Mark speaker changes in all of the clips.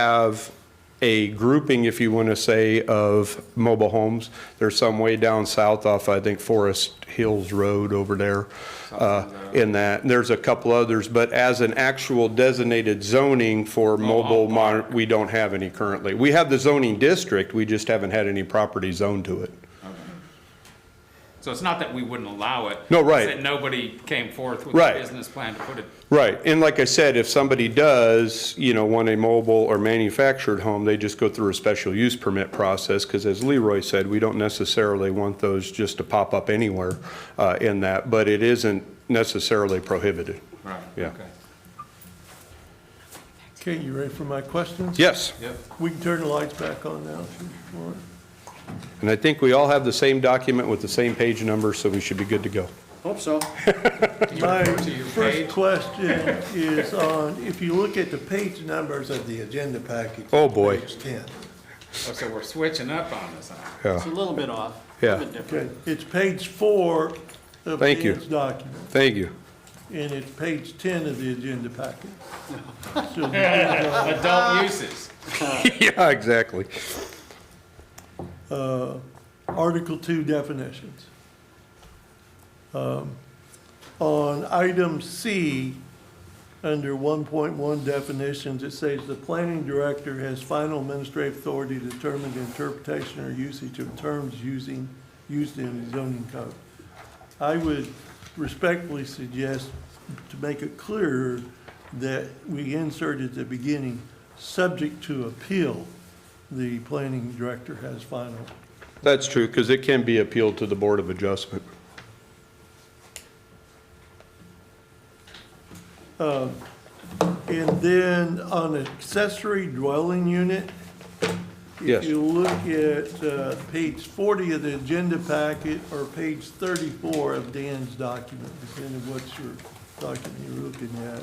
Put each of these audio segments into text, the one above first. Speaker 1: have a grouping, if you want to say, of mobile homes. There's some way down south off, I think, Forest Hills Road over there uh, in that. And there's a couple others, but as an actual designated zoning for mobile, mon- we don't have any currently. We have the zoning district, we just haven't had any property zoned to it.
Speaker 2: So it's not that we wouldn't allow it.
Speaker 1: No,
Speaker 2: it's
Speaker 1: right.
Speaker 2: that nobody came forth with
Speaker 1: Right.
Speaker 2: a business plan to put it,
Speaker 1: Right, and like I said, if somebody does, you know, want a mobile or manufactured home, they just go through a special use permit process, because as Leroy said, we don't necessarily want those just to pop up anywhere uh, in that, but it isn't necessarily prohibited.
Speaker 2: right,
Speaker 1: Yeah.
Speaker 2: okay.
Speaker 3: Okay, you ready for my questions?
Speaker 1: Yes,
Speaker 2: Yep,
Speaker 3: We can turn the lights back on now if you want.
Speaker 1: and I think we all have the same document with the same page number, so we should be good to go.
Speaker 4: Hope so.
Speaker 3: My
Speaker 2: to your page.
Speaker 3: first question is on, if you look at the page numbers of the agenda package.
Speaker 1: Oh, boy.
Speaker 3: Page 10.
Speaker 2: Oh, so we're switching up on this, huh?
Speaker 4: It's a little bit off. a
Speaker 1: Yeah.
Speaker 4: little bit different.
Speaker 3: Okay, it's page four of
Speaker 1: Thank you.
Speaker 3: Dan's document,
Speaker 1: Thank you.
Speaker 3: and it's page 10 of the agenda package. So the
Speaker 2: adult uses.
Speaker 1: Yeah, exactly.
Speaker 3: uh, Article 2 definitions. Um, On item C, under 1.1 definitions, it says the planning director has final administrative authority to determine the interpretation or usage of terms using, used in the zoning code. I would respectfully suggest, to make it clearer, that we insert at the beginning, subject to appeal, the planning director has final.
Speaker 1: That's true, because it can be appealed to the Board of Adjustment.
Speaker 3: And then on accessory dwelling unit,
Speaker 1: Yes.
Speaker 3: if you look at uh, page 40 of the agenda packet, or page 34 of Dan's document, depending what your document you're looking at.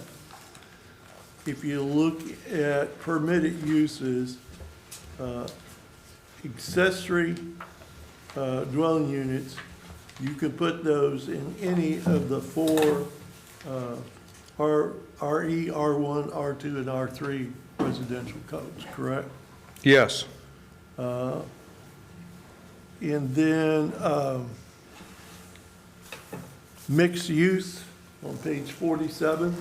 Speaker 3: If you look at permitted uses, uh, accessory uh, dwelling units, you could put those in any of the four uh, R, E, RE, R1, R2, and R3 residential codes, correct?
Speaker 1: Yes.
Speaker 3: And then, um, mixed use on page forty-seven.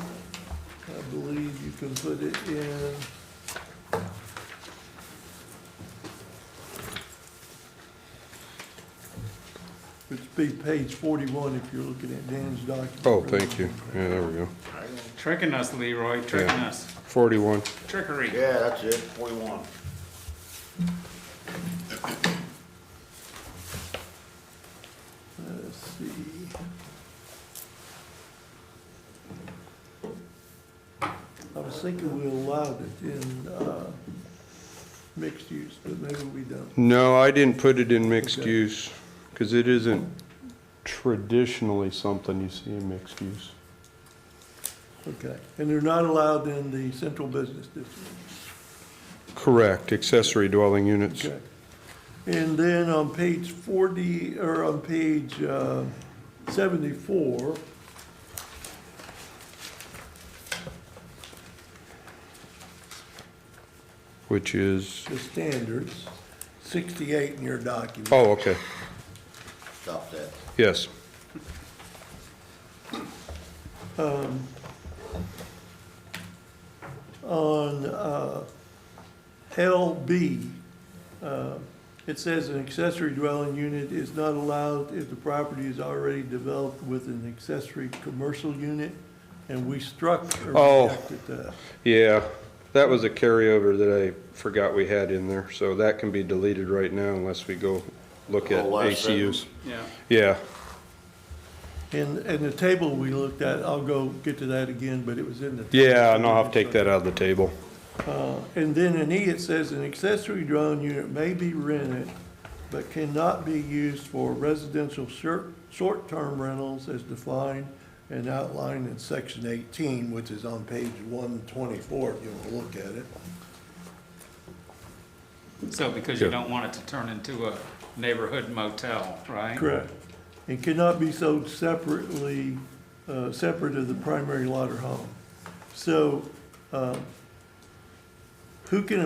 Speaker 3: I believe you can put it in. It'd be page forty-one if you're looking at Dan's document.
Speaker 1: Oh, thank you. Yeah, there we go.
Speaker 2: Tricking us, Leroy, tricking
Speaker 1: Yeah.
Speaker 2: us,
Speaker 1: 41.
Speaker 2: trickery.
Speaker 4: Yeah, that's it, forty-one.
Speaker 3: Let's see. I was thinking we allowed it in, uh, mixed use, but maybe we don't.
Speaker 1: No, I didn't put it in mixed
Speaker 3: Okay.
Speaker 1: use, because it isn't traditionally something you see in mixed use.
Speaker 3: Okay, and they're not allowed in the central business district,
Speaker 1: Correct, accessory dwelling units.
Speaker 3: okay? And then on page forty, or on page uh, seventy-four,
Speaker 1: Which is,
Speaker 3: the standards, sixty-eight in your document.
Speaker 1: oh, okay,
Speaker 4: Stop that.
Speaker 1: yes.
Speaker 3: on uh, LB, uh, it says an accessory dwelling unit is not allowed if the property is already developed with an accessory commercial unit, and we struck
Speaker 1: Oh.
Speaker 3: or rejected that.
Speaker 1: Yeah, that was a carryover that I forgot we had in there, so that can be deleted right now unless we go look at
Speaker 4: The last
Speaker 1: ACUs.
Speaker 2: Yeah,
Speaker 1: Yeah,
Speaker 3: And, and the table we looked at, I'll go get to that again, but it was in the.
Speaker 1: yeah, and I'll have to take that out of the table.
Speaker 3: Uh, And then in E, it says an accessory dwelling unit may be rented, but cannot be used for residential short, short-term rentals as defined and outlined in section eighteen, which is on page one twenty-four, if you want to look at it.
Speaker 2: so because you
Speaker 1: Yeah.
Speaker 2: don't want it to turn into a neighborhood motel, right?
Speaker 3: Correct. And cannot be sold separately, uh, separate of the primary lot or home. So, uh, who can